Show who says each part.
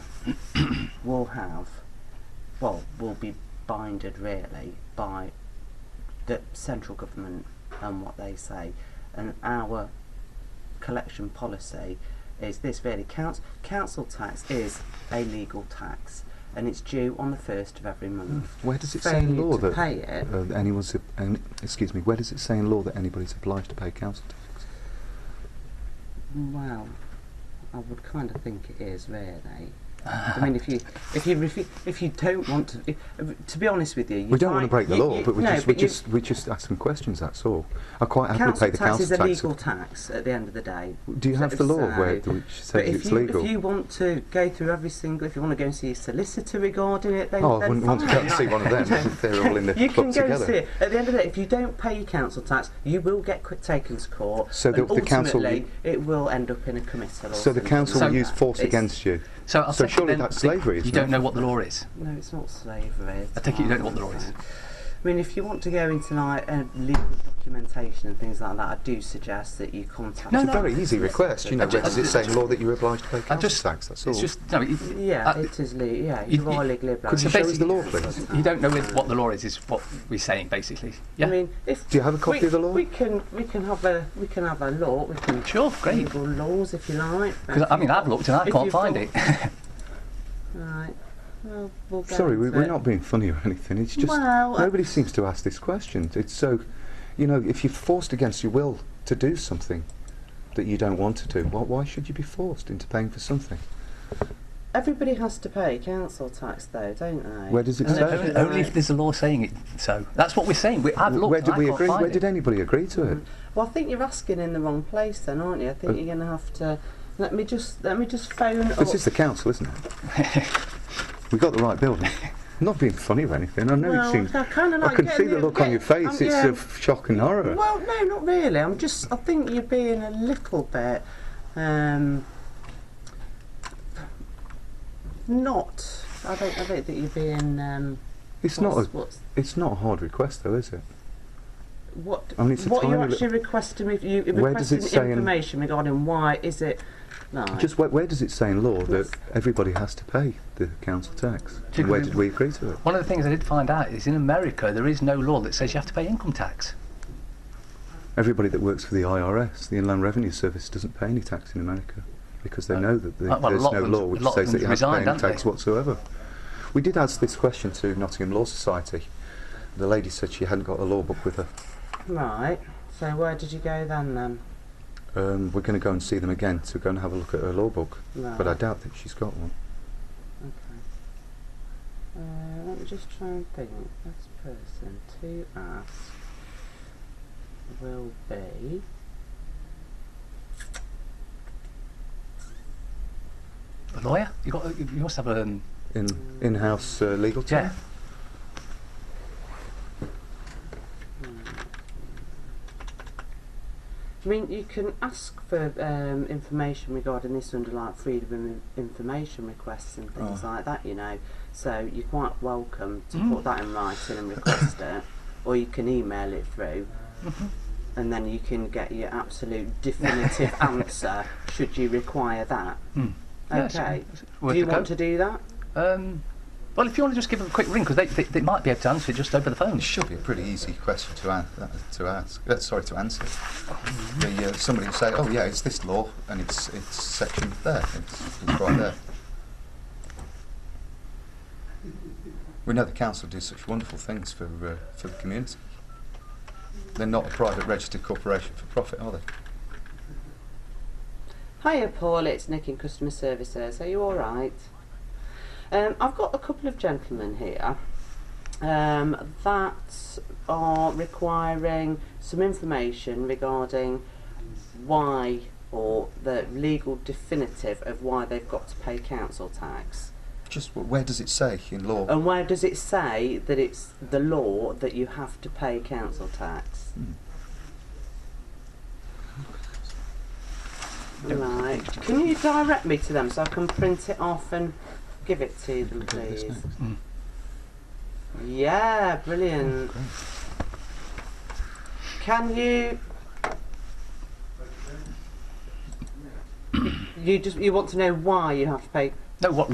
Speaker 1: will have, well, will be binded really by the central government and what they say. And our collection policy is this really council council tax is a legal tax and it's due on the first of every month.
Speaker 2: Hmm. Where does it say in
Speaker 1: Failure
Speaker 2: law
Speaker 1: to
Speaker 2: that
Speaker 1: pay it
Speaker 2: uh, that anyone's ob- an- excuse me? Where does it say in law that anybody's obliged to pay council tax?
Speaker 1: Well, I would kind of think it is really. I mean, if you if you refu- if you don't want to, if, if- to be honest with you, you
Speaker 2: We don't want to
Speaker 1: might-
Speaker 2: break the
Speaker 1: you-
Speaker 2: law,
Speaker 1: you-
Speaker 2: but we
Speaker 1: no,
Speaker 2: just we
Speaker 1: you-
Speaker 2: just we just ask some questions. That's all. I quite happily
Speaker 1: council
Speaker 2: pay the
Speaker 1: tax
Speaker 2: council
Speaker 1: is a
Speaker 2: tax.
Speaker 1: legal tax at the end of the day.
Speaker 2: Do you
Speaker 1: So
Speaker 2: have the law
Speaker 1: it's,
Speaker 2: where
Speaker 1: uh,
Speaker 2: th- which
Speaker 1: But
Speaker 2: says
Speaker 1: if
Speaker 2: it's
Speaker 1: you,
Speaker 2: legal?
Speaker 1: if you want to go through every single, if you want to go and see a solicitor regarding it, then
Speaker 2: oh, I
Speaker 1: then
Speaker 2: wouldn't want to
Speaker 1: fine.
Speaker 2: go and see one of them. They're all in the
Speaker 1: You
Speaker 2: club
Speaker 1: can go and
Speaker 2: together.
Speaker 1: see it. At the end of the day, if you don't pay your council tax, you will get qu- taken to court.
Speaker 2: So the-
Speaker 1: and
Speaker 2: the council-
Speaker 1: ultimately, it will end up in a committal. Or
Speaker 2: So the
Speaker 1: something
Speaker 2: council
Speaker 1: like
Speaker 2: will use
Speaker 1: that.
Speaker 2: force
Speaker 1: It's-
Speaker 2: against you.
Speaker 3: So, I'll
Speaker 2: So
Speaker 3: take it
Speaker 2: surely
Speaker 3: then
Speaker 2: that's
Speaker 3: that
Speaker 2: slavery,
Speaker 3: You
Speaker 2: isn't
Speaker 3: don't
Speaker 2: it?
Speaker 3: know what the law is.
Speaker 1: No, it's not slavery. it's
Speaker 3: I take it you don't know
Speaker 1: not
Speaker 3: what the law is.
Speaker 1: I mean, if you want to go into like uh, legal documentation and things like that, I do suggest that you contact. a
Speaker 3: No,
Speaker 2: It's a very easy request, you know.
Speaker 3: ju-
Speaker 2: Where does
Speaker 3: I
Speaker 2: it
Speaker 3: ju-
Speaker 2: say in law that you're obliged to pay council
Speaker 3: just-
Speaker 2: tax? That's all.
Speaker 3: It's just no. It,
Speaker 1: Yeah,
Speaker 3: uh,
Speaker 1: it is legal. Yeah,
Speaker 3: you-
Speaker 1: you are
Speaker 3: you-
Speaker 1: legally
Speaker 2: Could
Speaker 1: obliged.
Speaker 2: you
Speaker 3: So
Speaker 2: show us the
Speaker 3: basically-
Speaker 2: law, please?
Speaker 3: you don't know with what the law is. Is what we're saying basically. Yeah.
Speaker 1: I mean, if
Speaker 2: Do you have a copy
Speaker 1: we,
Speaker 2: of the law?
Speaker 1: We can we can have a we can have a law. We can
Speaker 3: Sure, great.
Speaker 1: legal laws if you like. but
Speaker 3: 'Cause,
Speaker 1: if
Speaker 3: I
Speaker 1: you
Speaker 3: mean, I've
Speaker 1: want-
Speaker 3: looked and I
Speaker 1: if
Speaker 3: can't
Speaker 1: you
Speaker 3: find
Speaker 1: thought-
Speaker 3: it.
Speaker 1: Right. Well, we'll go
Speaker 2: Sorry, we,
Speaker 1: into
Speaker 2: we're
Speaker 1: it.
Speaker 2: not being funny or anything. It's just
Speaker 1: Well, I-
Speaker 2: nobody seems to ask this question. It's so, you know, if you're forced against your will to do something that you don't want to do, why why should you be forced into paying for something?
Speaker 1: Everybody has to pay council tax, though, don't they?
Speaker 2: Where does it
Speaker 1: And
Speaker 2: say?
Speaker 1: if
Speaker 3: only,
Speaker 1: you
Speaker 3: only if
Speaker 1: like-
Speaker 3: there's a law saying it. So that's what we're saying. We, I've
Speaker 2: W-
Speaker 3: looked.
Speaker 2: Where
Speaker 3: and
Speaker 2: did
Speaker 3: I
Speaker 2: we
Speaker 3: can't
Speaker 2: agree?
Speaker 3: find
Speaker 2: Where
Speaker 3: it. Mm.
Speaker 2: did anybody agree to it?
Speaker 1: Well, I think you're asking in the wrong place, then, aren't you? I think
Speaker 2: Uh,
Speaker 1: you're going to have to. Let me just let me just phone up.
Speaker 3: Oh.
Speaker 2: This is the council, isn't it? we got the right building. not being funny or anything. I know
Speaker 1: well,
Speaker 2: it seems.
Speaker 1: I kind of like
Speaker 2: I can see
Speaker 1: getting
Speaker 2: the look on your
Speaker 1: get-
Speaker 2: face.
Speaker 1: um,
Speaker 2: it's
Speaker 1: yeah.
Speaker 2: of shock and horror.
Speaker 1: Well, no, not really. I'm just. I think you're being a little bit. Um, not. I don't. I don't think you're being. Um,
Speaker 2: It's
Speaker 1: what's,
Speaker 2: not. A,
Speaker 1: what's
Speaker 2: it's not a hard request, though, is it?
Speaker 1: what
Speaker 2: I mean, it's a
Speaker 1: what
Speaker 2: tiny
Speaker 1: you're
Speaker 2: li-
Speaker 1: actually requesting if you you're
Speaker 2: Where does it
Speaker 1: requesting
Speaker 2: say in-
Speaker 1: information regarding why is it no
Speaker 2: Just where, where does it say in law that
Speaker 1: Yes.
Speaker 2: everybody has to pay the council tax?
Speaker 3: Did
Speaker 2: And where
Speaker 3: we-
Speaker 2: did we agree to it?
Speaker 3: One of the things I did find out is in America there is no law that says you have to pay income tax.
Speaker 2: Everybody that works for the IRS, the Inland Revenue Service, doesn't pay any tax in America because they
Speaker 3: Uh,
Speaker 2: know that the,
Speaker 3: uh, well, a
Speaker 2: there's
Speaker 3: lot
Speaker 2: no
Speaker 3: of them-
Speaker 2: law
Speaker 3: a
Speaker 2: which
Speaker 3: lot of
Speaker 2: says that
Speaker 3: them
Speaker 2: you have to pay
Speaker 3: resigned,
Speaker 2: any
Speaker 3: haven't
Speaker 2: tax
Speaker 3: they?
Speaker 2: whatsoever. We did ask this question to Nottingham Law Society. The lady said she hadn't got a law book with her.
Speaker 1: right so where did you go then then
Speaker 2: Um, we're going to go and see them again to go and have a look at her law book,
Speaker 1: right.
Speaker 3: Ah.
Speaker 2: but I doubt that she's got one.
Speaker 1: okay uh, let me just try and think best person to ask will be
Speaker 3: A lawyer? You got. You must have a. Um,
Speaker 2: In in-house uh, legal team.
Speaker 3: yeah.
Speaker 1: I mean, you can ask for um, information regarding this under like freedom of information requests and things like that, you know. So you're quite welcome to put that in writing and request it, or you can email it through, and then you can get your absolute definitive answer should you require that.
Speaker 3: Mm. Yeah, it's-
Speaker 1: Okay.
Speaker 3: it's worth
Speaker 1: do you
Speaker 3: a go.
Speaker 1: want to do that?
Speaker 3: Um, well, if you want to just give them a quick ring, because they, they, they might be able to answer it just over the phone.
Speaker 4: It should be a pretty easy question to, an- to ask. Uh, sorry, to answer. The, uh, somebody will say, "Oh yeah, it's this law, and it's it's section there. It's, it's right there." We know the council do such wonderful things for uh, for the community. They're not a private registered corporation for profit, are they?
Speaker 1: Hiya, Paul. It's Nick in customer services. Are you all right? Um, I've got a couple of gentlemen here um, that are requiring some information regarding why or the legal definitive of why they've got to pay council tax.
Speaker 4: Just wh- where does it say in law?
Speaker 1: And where does it say that it's the law that you have to pay council tax?
Speaker 4: Hmm.
Speaker 1: Right. Can you direct me to them so I can print it off and give it to them,
Speaker 4: Look at this
Speaker 1: please?
Speaker 4: next. Hmm.
Speaker 1: Yeah,
Speaker 4: Oh,
Speaker 1: brilliant. Can you? You just you want to know why you have to pay
Speaker 3: No, what